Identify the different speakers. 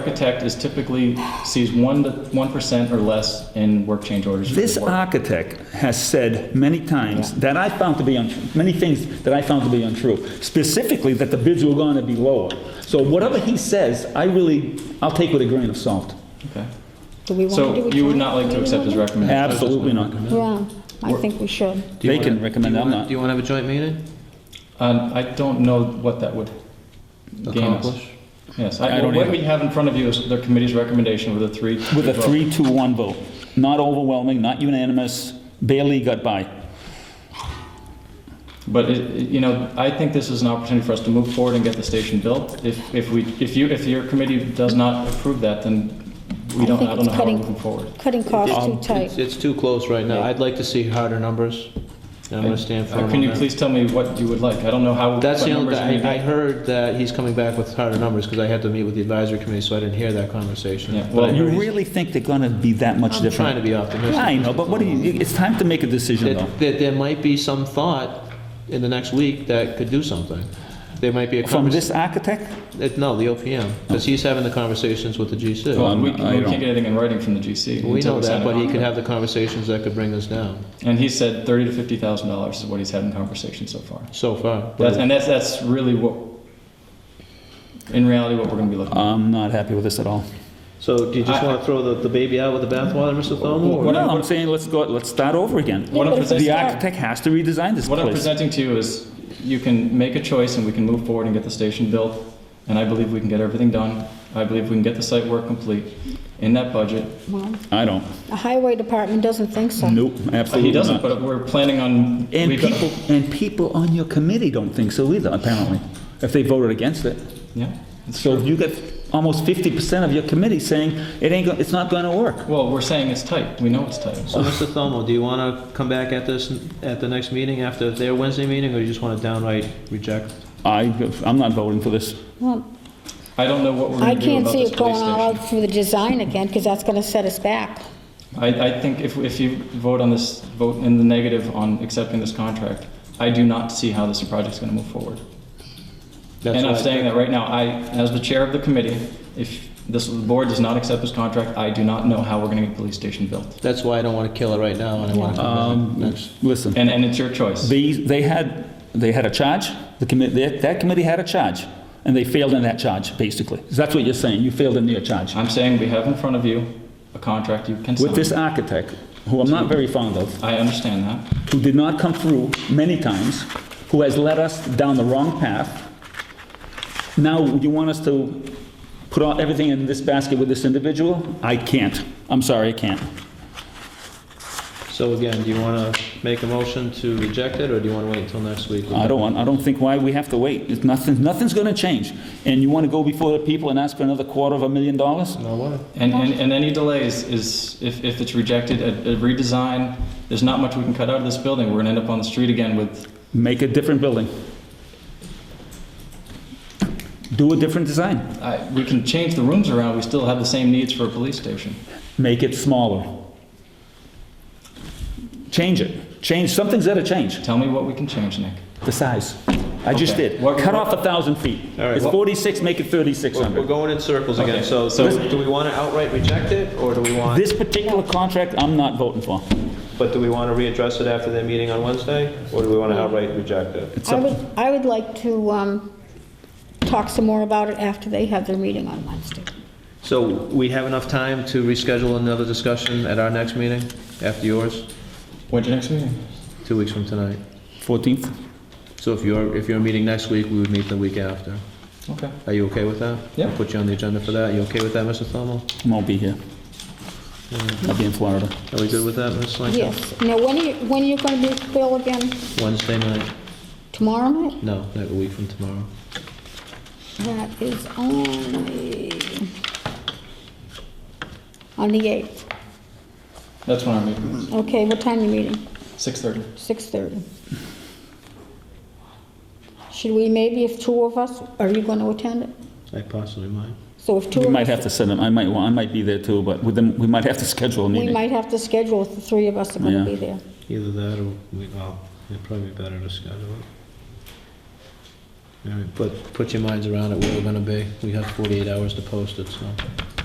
Speaker 1: Architect is typically sees one to one percent or less in work change orders. for the
Speaker 2: This uh,
Speaker 1: work.
Speaker 2: architect has said many times that I found to be untrue, many things that I found to be untrue, specifically that the bids were going to be lower. So whatever he says, I really, I'll take with a grain of salt.
Speaker 1: Okay.
Speaker 3: Do we want to do
Speaker 1: So
Speaker 3: a
Speaker 1: you would
Speaker 3: joint
Speaker 1: not like to
Speaker 3: meeting
Speaker 1: accept
Speaker 3: with
Speaker 1: his
Speaker 3: them?
Speaker 1: recommendation?
Speaker 2: Absolutely not.
Speaker 3: Yeah, I think we should.
Speaker 4: Do you
Speaker 2: They can
Speaker 4: wanna-
Speaker 2: recommend,
Speaker 4: do you
Speaker 2: I'm
Speaker 4: wanna-
Speaker 2: not.
Speaker 4: Do you want to have a joint meeting?
Speaker 1: Um, I don't know what that would gain us.
Speaker 4: Accomplish?
Speaker 1: Yes,
Speaker 2: I
Speaker 1: I,
Speaker 2: don't
Speaker 1: what
Speaker 2: either.
Speaker 1: we have in front of you is the committee's recommendation with a three.
Speaker 2: With a
Speaker 1: vote.
Speaker 2: three, two, one vote. Not overwhelming, not unanimous, barely got by.
Speaker 1: But, it- it- you know, I think this is an opportunity for us to move forward and get the station built. If, if we, if you, if your committee does not approve that, then we
Speaker 3: I
Speaker 1: don't,
Speaker 3: think
Speaker 1: I don't
Speaker 3: it's
Speaker 1: know how we're
Speaker 3: cutting-
Speaker 1: moving forward.
Speaker 3: Cutting costs too
Speaker 1: Um,
Speaker 4: It's-
Speaker 3: tight.
Speaker 4: It's too close right now. I'd like to see harder numbers, and I'm going to stand firm
Speaker 1: Uh, Can
Speaker 4: on
Speaker 1: you
Speaker 4: that.
Speaker 1: please tell me what you would like? I don't know how.
Speaker 4: That's
Speaker 1: what
Speaker 4: the only,
Speaker 1: numbers you
Speaker 4: thing- I, I
Speaker 1: need.
Speaker 4: heard that he's coming back with harder numbers, because I had to meet with the advisory committee, so I didn't hear that conversation.
Speaker 1: Yeah,
Speaker 4: But I
Speaker 1: well,
Speaker 4: heard
Speaker 2: You
Speaker 4: he's-
Speaker 2: really think they're going to be that much
Speaker 4: I'm trying
Speaker 2: different?
Speaker 4: to be optimistic.
Speaker 2: I know, but what do you, it's time to make a decision, though.
Speaker 4: That, that there might be some thought in the next week that could do something. There might be a
Speaker 2: From
Speaker 4: conversation,
Speaker 2: this architect?
Speaker 4: no, the OPM, because he's having the conversations with the GC.
Speaker 1: Well, we, we
Speaker 2: Um, I
Speaker 1: can't
Speaker 2: don't-
Speaker 1: get anything in writing from the GC.
Speaker 4: We
Speaker 1: until sign
Speaker 4: know that,
Speaker 1: a
Speaker 4: but he could
Speaker 1: contract.
Speaker 4: have the conversations that could bring us down,
Speaker 1: And he said thirty to fifty thousand dollars is what he's had in conversation so far.
Speaker 4: so far.
Speaker 1: That's, and that's, that's really what, in reality, what we're gonna be looking at.
Speaker 2: I'm not happy with this at all.
Speaker 4: So do you just
Speaker 1: I-
Speaker 4: want to throw the, the baby out with the bathwater, Mr. Thomo? or-
Speaker 2: No, I'm saying let's go, let's start over again.
Speaker 1: What I'm
Speaker 3: but if we
Speaker 1: presenting-
Speaker 2: The
Speaker 3: start-
Speaker 2: architect has to redesign this
Speaker 1: What I'm
Speaker 2: place.
Speaker 1: presenting to you is, you can make a choice and we can move forward and get the station built, and I believe we can get everything done. I believe we can get the site work complete in that budget.
Speaker 3: Well,
Speaker 2: I don't.
Speaker 3: The highway department doesn't think so.
Speaker 2: Nope,
Speaker 1: He
Speaker 2: absolutely
Speaker 1: doesn't,
Speaker 2: not.
Speaker 1: but we're planning on.
Speaker 2: And
Speaker 1: we've got-
Speaker 2: people, and people on your committee don't think so either, apparently, if they voted against it.
Speaker 1: Yeah.
Speaker 2: So you get almost 50% of your committee saying it ain't, go- it's not gonna work.
Speaker 1: Well, we're saying it's tight. We know it's tight.
Speaker 4: So, Mr. Thomo, do you want to come back at this, at the next meeting, after their Wednesday meeting, or you just want to downright reject?
Speaker 2: I, I'm not voting for this.
Speaker 3: Well,
Speaker 1: I don't know what we're
Speaker 3: I
Speaker 1: gonna do
Speaker 3: can't
Speaker 1: about
Speaker 3: see
Speaker 1: this
Speaker 3: it
Speaker 1: police
Speaker 3: going all
Speaker 1: station.
Speaker 3: out through the design again, because that's going to set us back.
Speaker 1: I, I think if, if you vote on this, vote in the negative on accepting this contract, I do not see how this project's gonna move forward.
Speaker 4: That's
Speaker 1: And I'm
Speaker 4: what I-
Speaker 1: saying that right now, I, as the chair of the committee, if this board does not accept this contract, I do not know how we're gonna get the police station built.
Speaker 4: That's why I don't want to kill it right now, and I want to come
Speaker 2: Um,
Speaker 4: back next.
Speaker 2: Listen,
Speaker 1: And, and it's your choice.
Speaker 2: they, they had, they had a charge, the committee, that committee had a charge, and they failed in that charge, basically. That's what you're saying, you failed in your charge.
Speaker 1: I'm saying we have in front of you a contract you can
Speaker 2: With this
Speaker 1: sign.
Speaker 2: architect, who I'm not very fond of,
Speaker 1: I understand that.
Speaker 2: who did not come through many times, who has led us down the wrong path. Now, you want us to put all, everything in this basket with this individual? I can't. I'm sorry, I can't.
Speaker 4: So again, do you want to make a motion to reject it, or do you want to wait until next week?
Speaker 1: Uh,
Speaker 2: I don't want, I don't think why we have to wait. It's nothing, nothing's gonna change. And you wanna go before the people and ask for another quarter of a million dollars?
Speaker 4: No way.
Speaker 1: And, and, and any delays is, if, if it's rejected, a a redesign, there's not much we can cut out of this building. We're gonna end up on the street again with
Speaker 2: Make a different building. Do a different design.
Speaker 1: I- We can change the rooms around, we still have the same needs for a police station.
Speaker 2: Make it smaller. Change it. Change, something's gotta change.
Speaker 1: Tell me what we can change, Nick.
Speaker 2: The size. I just
Speaker 1: Okay.
Speaker 2: did.
Speaker 1: What-
Speaker 2: Cut off a thousand feet.
Speaker 4: All right.
Speaker 2: It's 46, make it
Speaker 4: We're we're
Speaker 2: 3,600.
Speaker 4: going in circles again,
Speaker 1: Okay,
Speaker 4: so
Speaker 1: so-
Speaker 4: do do we want to outright reject it, or do we want,
Speaker 2: This particular contract, I'm not voting for.
Speaker 4: but do we want to readdress it after their meeting on Wednesday, or do we want to outright reject it?
Speaker 2: It's
Speaker 3: I
Speaker 2: up-
Speaker 3: would, I would like to um, talk some more about it after they have their meeting on Wednesday.
Speaker 4: So we have enough time to reschedule another discussion at our next meeting, after yours,
Speaker 1: When's your next meeting?
Speaker 4: two weeks from tonight.
Speaker 2: 14th?
Speaker 4: So if you're, if you're meeting next week, we would meet the week after.
Speaker 1: Okay.
Speaker 4: Are you okay with that?
Speaker 1: Yeah.
Speaker 4: I'll Put you on the agenda for that. You okay with that, Mr. Thomo?
Speaker 2: I won't be here. I'll be in Florida.
Speaker 4: Are we good with that, Ms. Lincoln?
Speaker 3: Yes. Now, when are you, when are you going to be Bill again?
Speaker 4: Wednesday night?
Speaker 3: Tomorrow night?
Speaker 4: No, like a week from tomorrow.
Speaker 3: That is only on the 8th.
Speaker 1: That's when our meeting is,
Speaker 3: Okay, what time you meeting?
Speaker 1: 6:30.
Speaker 3: 6:30. Should we, maybe if two of us, are you going to attend it?
Speaker 4: I possibly might.
Speaker 3: So if two
Speaker 2: We
Speaker 3: of
Speaker 2: might
Speaker 3: us,
Speaker 2: have to send them, I might, wa- I might be there too, but with them, we might have to schedule a
Speaker 3: we
Speaker 2: meeting.
Speaker 3: might have to schedule if the three of us are going to
Speaker 2: Yeah.
Speaker 3: be there.
Speaker 4: Either that or we, well, it'd probably be better to schedule it. All right, Put, put your minds around it, where we're gonna be. We have 48 hours to post it, so.